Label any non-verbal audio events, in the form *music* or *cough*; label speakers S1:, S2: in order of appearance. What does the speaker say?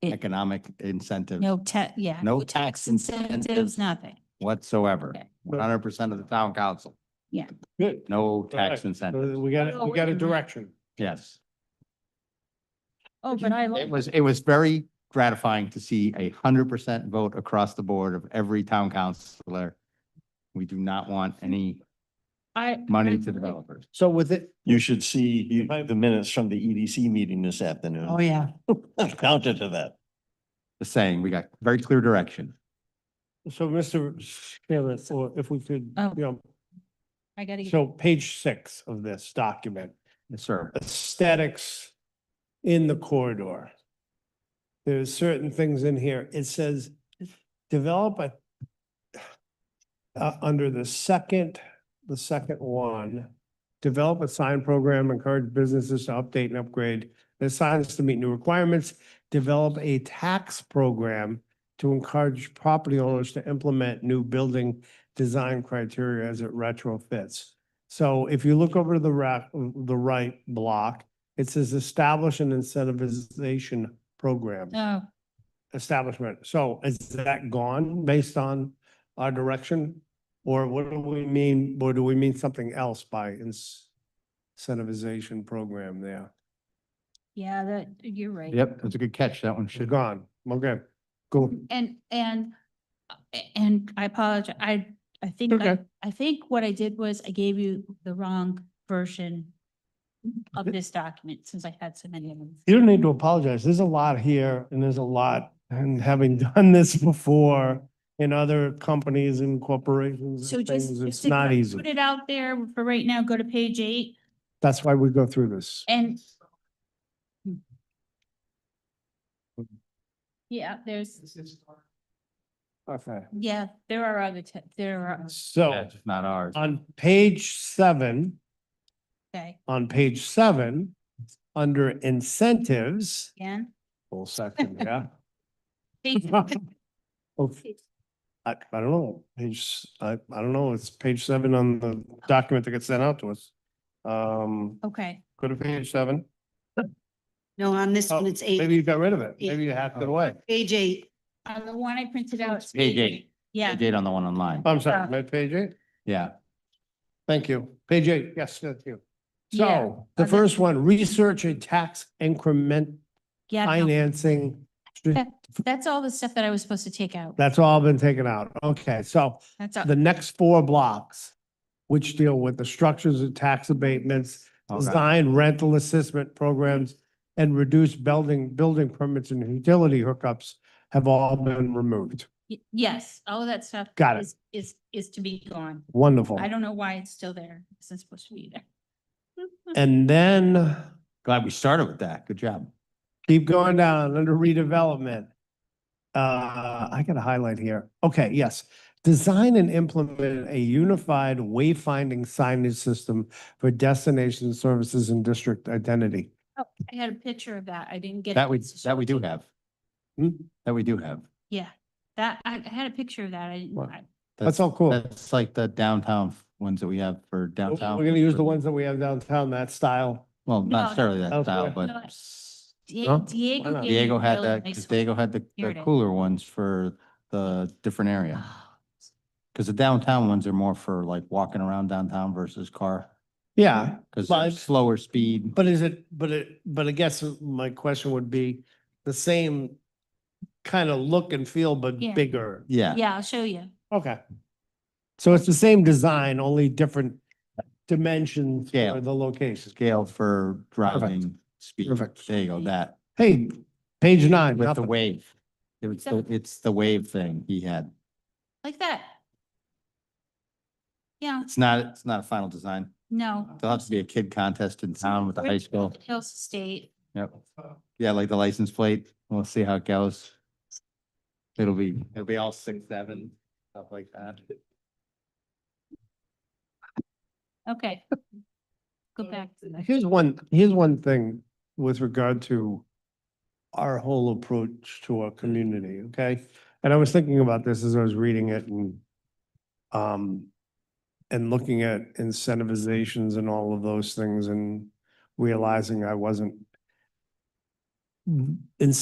S1: It-
S2: economic incentive
S1: No ta- yeah.
S2: No
S1: Tax
S2: tax
S1: incentives,
S2: incentives.
S1: nothing.
S2: whatsoever,
S1: Okay.
S2: one hundred percent of the town council,
S3: Good.
S2: no tax
S3: Alright.
S2: incentive,
S3: So We got,
S1: Oh,
S3: we got
S1: wait a
S3: a
S1: minute.
S3: direction.
S2: yes.
S1: Oh, but I like.
S2: It was, it was very gratifying to see a hundred percent vote across the board of every town councillor. We do not want any
S1: I.
S2: money
S1: I-
S2: to developers.
S3: So with it,
S4: You should see you- the minutes from the EDC meeting this afternoon.
S1: Oh,
S3: Oh,
S2: yeah.
S4: *laughs* Counter to that.
S2: Just saying, we got very clear direction.
S3: so Mr. Chairman, or if we could,
S1: Oh.
S3: you
S1: I gotta
S3: know,
S1: get
S3: so page six of this document,
S2: Yes, sir.
S3: aesthetics in the corridor. There's certain things in here. It says, develop a uh, under the second, the second one, develop a sign program, encourage businesses to update and upgrade their signs to meet new requirements, develop a tax program to encourage property owners to implement new building design criteria as it retrofits. So if you look over to the ra- the right block, it says establish an incentivization program
S1: Oh,
S3: establishment. So is that gone based on our direction? Or what do we mean, or do we mean something else by ins- incentivization program there?
S1: yeah, that, you're right.
S2: Yep, that's a good catch. That one
S3: Should
S2: should,
S3: gone, okay, go.
S1: And, and, and I apologize, I, I think, I,
S3: Okay.
S1: I think what I did was I gave you the wrong version of this document, since I had so many of them.
S3: You don't need to apologize. There's a lot here and there's a lot, and having *laughs* done this before in other companies and corporations
S1: So
S3: and
S1: just.
S3: things,
S1: just
S3: it's
S1: to
S3: not
S1: kinda
S3: easy.
S1: Put it out there for right now, go to page eight
S3: That's why we go through this.
S1: and.
S3: Hmm.
S1: Yeah, there's,
S3: Okay.
S1: yeah, there are other, te- there are,
S3: So
S2: that's not ours.
S3: on page seven.
S1: okay,
S3: on page seven, under incentives.
S2: *laughs*
S1: again.
S3: Full section, yeah.
S1: Page-
S3: Of- I, Oh, I don't know, page, I, I don't know, it's page seven on the document that gets sent out to us. Um,
S1: Okay,
S3: go to page seven.
S5: No, on this one,
S3: Oh,
S5: it's
S3: Maybe
S5: eight,
S3: you got rid of it, maybe you hacked it away.
S5: page eight.
S1: uh, the one I printed out. is
S2: Page eight,
S1: Yeah,
S2: page eight on the one online.
S3: I'm sorry, my page eight,
S2: Yeah,
S3: thank you, page eight, yes, thank you.
S1: Yeah,
S3: So, the
S1: other-
S3: first one, research and tax increment
S1: yeah, no,
S3: financing.
S1: that's all the stuff that I was supposed to take out.
S3: That's all been taken out, okay, so
S1: That's all.
S3: the next four blocks, which deal with the structures and tax abatements,
S2: okay,
S3: design rental assessment programs, and reduce building, building permits and utility hookups have all been removed.
S1: Y- Yes, all of that stuff.
S3: Got it.
S1: is- Is, is to be gone.
S3: Wonderful.
S1: I don't know why it's still there. It's not supposed to be there.
S3: And then
S2: glad we started with that. Good job.
S3: keep going down under redevelopment. Uh, I got a highlight here. Okay, yes. Design and implement a unified wayfinding signage system for destination services and district identity.
S1: Oh, I had a picture of that. I didn't get.
S2: That
S1: it.
S2: we, that we do have.
S3: Hmm?
S2: That we do have.
S1: Yeah, that, I I had a picture of that. I didn't,
S3: What?
S1: I-
S3: That's all cool.
S2: That's like the downtown ones that we have for
S3: We're
S2: downtown.
S3: gonna use the ones that we have downtown, that style.
S2: Well,
S1: No.
S2: not necessarily that
S3: Elsewhere.
S2: style,
S1: No, I-
S2: but
S1: Die-
S3: No?
S1: Diego.
S3: Why not?
S1: gave me
S2: Diego
S1: a
S2: had
S1: really
S2: that,
S1: nice
S2: 'cause
S1: one.
S2: Diego had the,
S1: Here
S2: the
S1: it is. Ah.
S2: cooler ones for the different area. Because the downtown ones are more for like walking around downtown versus car,
S3: Yeah,
S2: because
S3: Live.
S2: slower speed.
S3: but is it, but it, but I guess my question would be the same kind of look and feel, but
S1: Yeah.
S3: bigger.
S2: Yeah,
S1: Yeah, I'll show you.
S3: Okay. So it's the same design, only different dimensions
S2: Scale.
S3: for the locations.
S2: scale for driving speed.
S3: Perfect.
S2: There you go, that,
S3: Hey, page nine,
S2: with the
S3: nothing.
S2: wave. It was, the- it's the wave thing he had.
S1: Like that. Yeah,
S2: It's not, it's not a final design.
S1: no.
S2: There'll have to be a kid contest in town with the high school.
S1: Hills State.
S2: Yep. Yeah, like the license plate. We'll see how it goes. It'll be, it'll be all six, seven, stuff like that.
S1: Okay. Go back to
S3: *laughs*
S1: that.
S3: Here's one, here's one thing with regard to our whole approach to our community, okay? And I was thinking about this as I was reading it and um, and looking at incentivizations and all of those things and realizing I wasn't in,